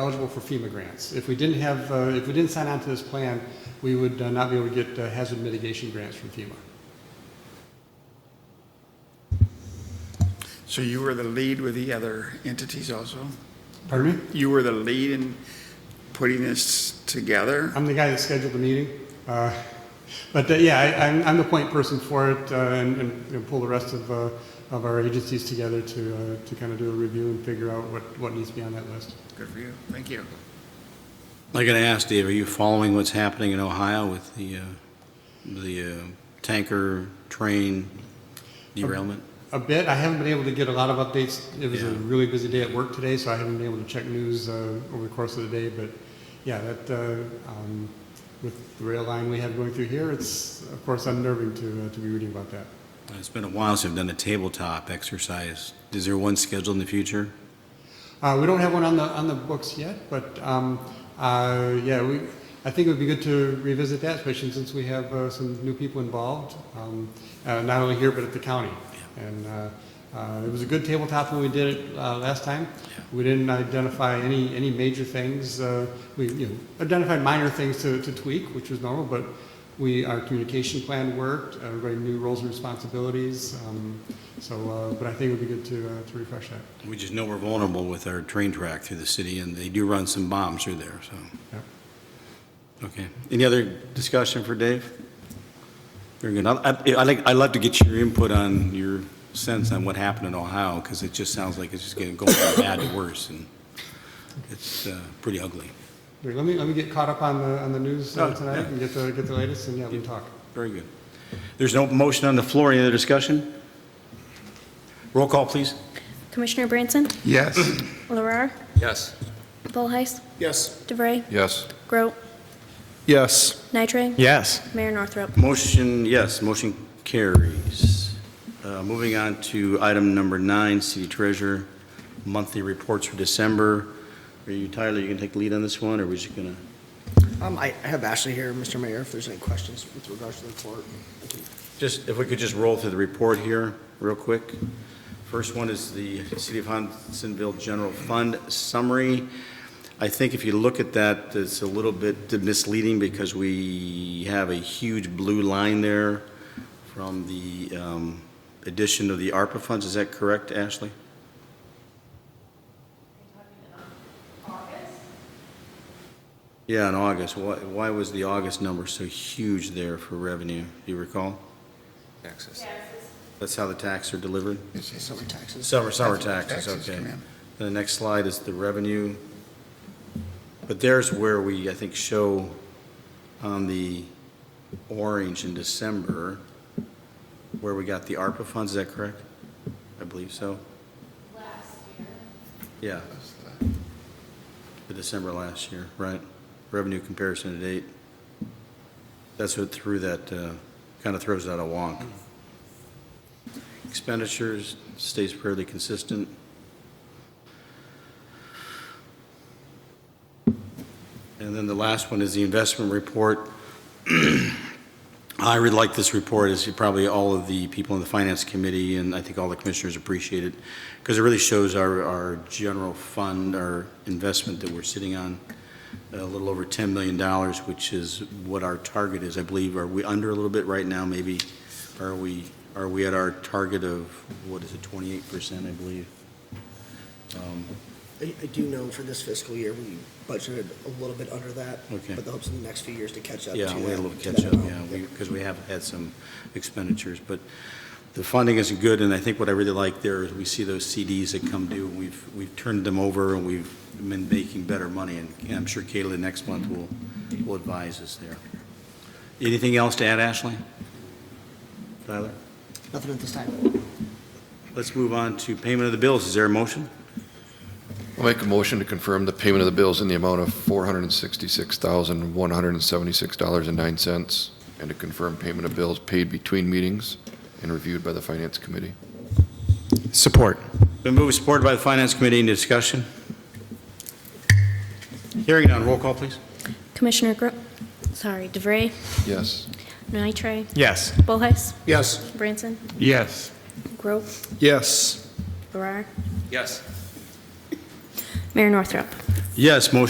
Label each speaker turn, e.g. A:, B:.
A: eligible for FEMA grants. If we didn't have, uh, if we didn't sign on to this plan, we would uh, not be able to get uh, hazard mitigation grants from FEMA.
B: So you were the lead with the other entities also?
A: Pardon me?
B: You were the lead in putting this together?
A: I'm the guy that scheduled the meeting. Uh, But uh, yeah, I- I'm, I'm the point person for it uh, and, and you know, pull the rest of, uh, of our agencies together to, uh, to kind of do a review and figure out what, what needs to be on that list.
B: Good for you. Thank you.
C: I gotta ask, Dave, are you following what's happening in Ohio with the, uh, the uh, tanker train derailment?
A: A bit, I haven't been able to get a lot of updates. It was a
C: Yeah.
A: really busy day at work today, so I haven't been able to check news uh, over the course of the day, but yeah, that, uh, um, with the rail line we have going through here, it's of course unnerving to, uh, to be reading about that.
C: It's been a while since I've done a tabletop exercise. Is there one scheduled in the future?
A: Uh, we don't have one on the on the books yet, but um, uh, yeah, we. I think it would be good to revisit that, especially since we have uh, some new people involved, um, uh, not only here but at the county. And uh, uh, it was a good tabletop when we did it uh, last time.
C: Yeah.
A: We didn't identify any any major things. Uh, we you know, identified minor things to, to tweak, which was normal, but. We, our communication plan worked, everybody knew roles and responsibilities, um, so, uh, but I think it would be good to, uh, to refresh that.
C: We just know we're vulnerable with our train track through the city, and they do run some bombs through there, so,
A: Yeah.
C: okay. Any other discussion for Dave? Very good. I- I- I'd like, I'd love to get your input on your sense on what happened in Ohio, because it just sounds like it's just getting, going from bad to worse, and it's uh, pretty ugly.
A: Here, let me, let me get caught up on the, on the news uh,
C: Oh,
A: tonight
C: yeah.
A: and get the, get the latest, and yeah, we can talk.
C: Very good. There's no motion on the floor, any other discussion? Roll call, please.
D: Commissioner Branson,
B: Yes.
D: Larrar,
E: Yes.
D: Volheis,
B: Yes.
D: DeVray,
E: Yes.
D: Grote,
B: Yes.
D: Nitre,
E: Yes.
D: Mayor Northrop.
C: Motion, yes, motion carries. Uh, Moving on to item number nine, city treasurer, monthly reports for December. Are you, Tyler, you gonna take the lead on this one, or are we just gonna?
F: Um, I I have Ashley here, Mr. Mayor, if there's any questions with regards to the report.
C: Just, if we could just roll through the report here real quick. First one is the City of Hudsonville General Fund Summary. I think if you look at that, it's a little bit misleading because we have a huge blue line there from the um, addition of the ARPA funds. Is that correct, Ashley? Yeah, in August. Why why was the August number so huge there for revenue? Do you recall?
E: Access.
C: That's how the tax are delivered?
F: Summer taxes.
C: Summer, summer
B: That's when
C: taxes,
B: taxes
C: okay.
B: come in.
C: The next slide is the revenue. But there's where we, I think, show on the orange in December where we got the ARPA funds, is that correct? I believe so. Last year. Yeah, the December last year, right? Revenue comparison to date. That's what threw that, uh, kind of throws that a wonk. Expenditures stays fairly consistent. And then the last one is the investment report. I really like this report, as you- probably all of the people in the Finance Committee, and I think all the commissioners appreciate it, because it really shows our, our general fund, our investment that we're sitting on, a little over $10 million, which is what our target is, I believe. Are we under a little bit right now, maybe? Are we, are we at our target of, what is it, 28%, I believe? Um,
F: I I do know for this fiscal year, we budgeted a little bit under that.
C: Okay.
F: But the hopes in the next few years to catch up to
C: Yeah,
F: that.
C: we had a little
F: to that
C: catch-up, yeah,
F: amount.
C: because we have had some expenditures, but the funding isn't good, and I think what I really like there is we see those CDs that come due, and we've, we've turned them over, and we've been making better money, and I'm sure Kayla next month will, will advise us there. Anything else to add, Ashley? Tyler?
F: Nothing at this time.
C: Let's move on to payment of the bills. Is there a motion?
G: I'll make a motion to confirm the payment of the bills in the amount of $466,176.09 and to confirm payment of bills paid between meetings and reviewed by the Finance Committee.
E: Support.
C: Been moved and supported by the Finance Committee. Any discussion? Hearing none. Roll call, please.
D: Commissioner Gro, sorry, DeVray,
G: Yes.
D: Nitre,
E: Yes.
D: Volheis,
B: Yes.
D: Branson,
E: Yes.
D: Grote,
B: Yes.
D: Larrar,
E: Yes.
D: Mayor Northrop.
C: Yes, motion